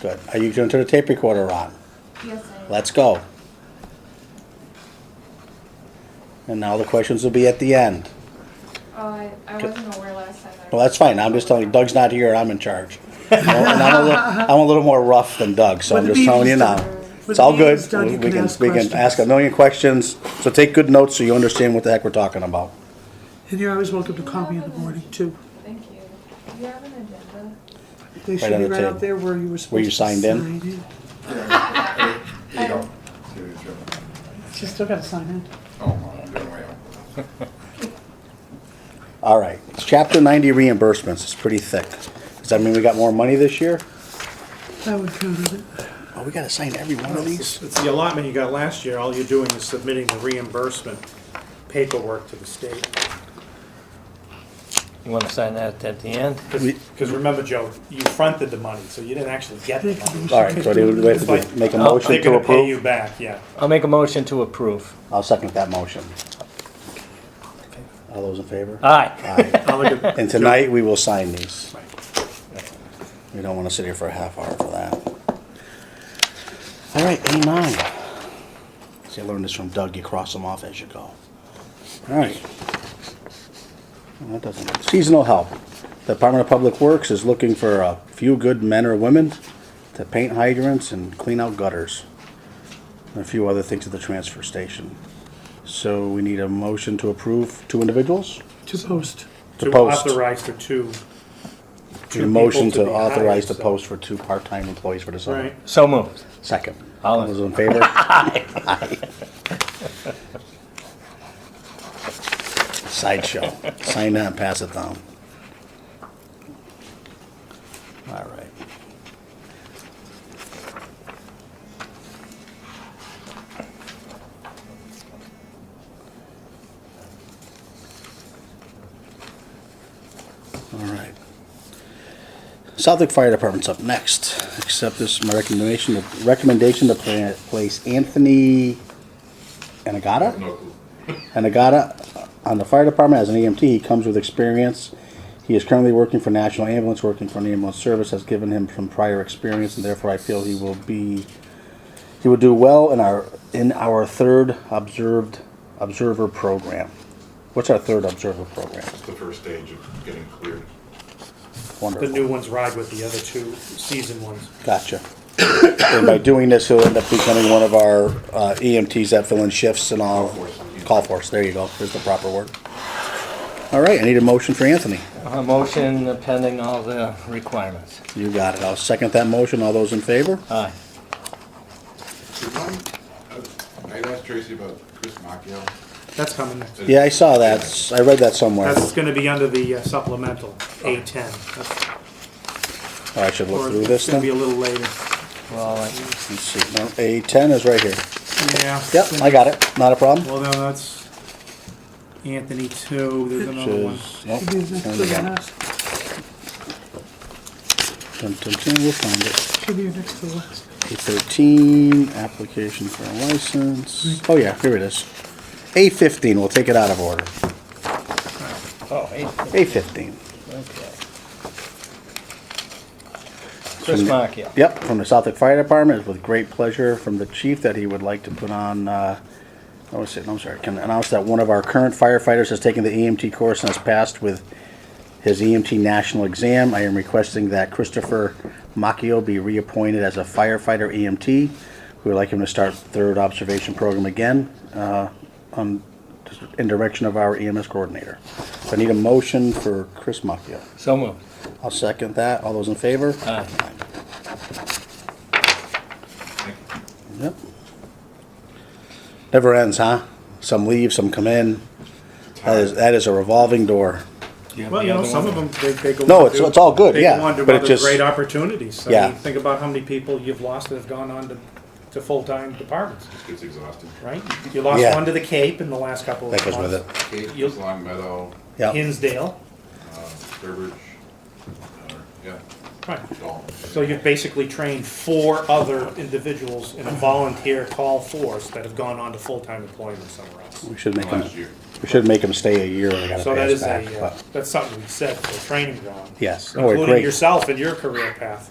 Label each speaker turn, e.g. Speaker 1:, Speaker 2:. Speaker 1: good. Are you going to turn the tape recorder on?
Speaker 2: Yes, I
Speaker 1: Let's go. And now the questions will be at the end.
Speaker 2: Oh, I, I wasn't aware last time. I-
Speaker 1: Well, that's fine. I'm just telling you, Doug's not here. I'm in charge. And I'm a little, I'm a little more rough than Doug, so I'm
Speaker 3: With the
Speaker 1: just telling you now.
Speaker 3: meetings done- with
Speaker 1: It's
Speaker 3: the
Speaker 1: all good.
Speaker 3: meetings done, you
Speaker 1: We
Speaker 3: can
Speaker 1: can,
Speaker 3: ask
Speaker 1: we can
Speaker 3: questions.
Speaker 1: ask a million questions, so take good notes so you understand what the heck we're talking about.
Speaker 3: And you're always welcome to call me in the morning too.
Speaker 2: Thank you. Do you have an agenda?
Speaker 3: They should
Speaker 1: on
Speaker 3: be
Speaker 1: the
Speaker 3: right
Speaker 1: table.
Speaker 3: out there where you were supposed to.
Speaker 1: Where you signed in.
Speaker 3: sign
Speaker 4: Yeah, you- you don't. Serious, you're not.
Speaker 3: She's still gotta sign in.
Speaker 4: Oh, well, I'm doing well.
Speaker 1: All right, it's chapter ninety reimbursements. It's pretty thick. Does that mean we got more money this year?
Speaker 3: That would count as it.
Speaker 1: Oh, we gotta sign every one of these?
Speaker 5: It's the allotment you got last year, all you're doing is submitting the reimbursement paperwork to the state.
Speaker 6: You want to sign that at the end?
Speaker 1: We-
Speaker 5: Because remember, Joe, you fronted the money, so you didn't actually get the money.
Speaker 1: All right, so do we have to do- make a motion
Speaker 5: They're
Speaker 1: to
Speaker 5: gonna pay
Speaker 1: approve?
Speaker 5: you back, yeah.
Speaker 6: I'll make a motion to approve.
Speaker 1: I'll second that motion. All those in favor?
Speaker 6: Aye.
Speaker 1: Aye.
Speaker 5: I'll look at-
Speaker 1: And tonight, we will sign these.
Speaker 5: Right.
Speaker 1: We don't wanna sit here for a half hour for that. All right, A nine. See, I learned this from Doug, you cross them off as you go. All right. Well, that doesn't, seasonal help. The Department of Public Works is looking for a few good men or women to paint hydrants and clean out gutters. And a few other things at the transfer station. So we need a motion to approve two individuals?
Speaker 3: To post.
Speaker 1: To
Speaker 5: To
Speaker 1: post.
Speaker 5: authorize for two,
Speaker 1: A
Speaker 5: people
Speaker 1: motion
Speaker 5: to
Speaker 1: to
Speaker 5: be
Speaker 1: authorize
Speaker 5: hired,
Speaker 1: the
Speaker 5: so-
Speaker 1: post for two part-time employees for the summer.
Speaker 5: right?
Speaker 6: So moved.
Speaker 1: Second.
Speaker 6: All
Speaker 1: All
Speaker 6: in-
Speaker 1: those in favor? Aye. Sideshow. Sign that and pass it down. All right. All right. Southwick Fire Department's up next. Accept this, my recommendation, recommendation to pla- place Anthony Anagata?
Speaker 4: No clue.
Speaker 1: Anagata on the fire department as an EMT. He comes with experience. He is currently working for National Ambulance, working for an ambulance service has given him some prior experience, and therefore I feel he will be, he will do well in our, in our third observed, observer program. What's our third observer program?
Speaker 4: It's the first stage of getting cleared.
Speaker 5: The
Speaker 1: Wonderful.
Speaker 5: new ones ride with the other two season ones.
Speaker 1: Gotcha. And by doing this, he'll end up becoming one of our uh, EMTs that fill in shifts and all.
Speaker 4: Call force.
Speaker 1: Call force, there you go, is the proper word. All right, I need a motion for Anthony.
Speaker 6: A motion pending all the requirements.
Speaker 1: You got it. I'll second that motion. All those in favor?
Speaker 6: Aye.
Speaker 4: Remind- uh, I I asked Tracy about Chris Macchio.
Speaker 5: That's coming.
Speaker 1: Yeah, I saw that. I read that somewhere.
Speaker 5: That's gonna be under the uh, supplemental, A ten. That's-
Speaker 1: Oh, I should look
Speaker 5: or
Speaker 1: through this
Speaker 5: It's gonna be a
Speaker 1: then.
Speaker 5: little later.
Speaker 6: Well, I-
Speaker 1: Let's see. No, A10 is right here.
Speaker 5: Yeah. it's
Speaker 1: Yep,
Speaker 5: gonna
Speaker 1: I got it. Not a problem.
Speaker 5: Well, no, that's Anthony too. There's
Speaker 1: Which
Speaker 5: another one.
Speaker 1: is, nope.
Speaker 3: Should be next
Speaker 1: Turn
Speaker 3: to
Speaker 1: it
Speaker 3: the
Speaker 1: again.
Speaker 3: last.
Speaker 1: Dun, dun, dun, We'll find it.
Speaker 3: Should be next to the last.
Speaker 1: A13, application for a license. Oh, yeah, here it is. A15, we'll take it out of order.
Speaker 6: oh, hey,
Speaker 1: A15.
Speaker 6: okay. Chris Macchio.
Speaker 1: Yep, from the Southwick Fire Department, It's with great pleasure from the chief that he would like to put on, uh, I was saying, I'm sorry, can announce that one of our current firefighters has taken the EMT course and has passed with his EMT national exam. I am requesting that Christopher Macchio be reappointed as a firefighter EMT. We would like him to start third observation program again, uh, on, in direction of our EMS coordinator. So I need a motion for Chris Macchio.
Speaker 6: So moved.
Speaker 1: I'll second that. All those in favor?
Speaker 6: Aye.
Speaker 1: Yep. Never ends, huh? Some leave, some come in. That is, that is a revolving door.
Speaker 6: Do you have
Speaker 5: Well,
Speaker 6: the
Speaker 5: you know,
Speaker 6: other
Speaker 5: some
Speaker 6: one?
Speaker 5: of them, they, they go.
Speaker 1: No,
Speaker 5: on
Speaker 1: it's-
Speaker 5: to-
Speaker 1: it's all good, yeah,
Speaker 5: They go on to
Speaker 1: but it
Speaker 5: other
Speaker 1: just-
Speaker 5: great opportunities. I
Speaker 1: Yeah.
Speaker 5: mean, think about how many people you've lost that have gone on to, to full-time departments,
Speaker 4: This gets exhausted.
Speaker 5: right? You lost
Speaker 1: Yeah.
Speaker 5: one to the Cape in the last couple of
Speaker 1: That
Speaker 5: months.
Speaker 1: goes with it.
Speaker 4: Kate,
Speaker 5: You-
Speaker 4: Long Meadow,
Speaker 1: Yeah.
Speaker 5: Hinsdale,
Speaker 4: Sturbridge, uh, yeah,
Speaker 5: right.
Speaker 4: Dalton.
Speaker 5: So you've basically trained four other individuals in a volunteer call force that have gone on to full-time employment somewhere else.
Speaker 1: We should make them,
Speaker 4: Last year.
Speaker 1: we should make them stay a year when they gotta
Speaker 5: So
Speaker 1: pay
Speaker 5: that
Speaker 1: us
Speaker 5: is
Speaker 1: back,
Speaker 5: a, uh,
Speaker 1: but,
Speaker 5: that's something we said for training ground.
Speaker 1: yes. Oh, we're
Speaker 5: Including
Speaker 1: great.
Speaker 5: yourself and your career path.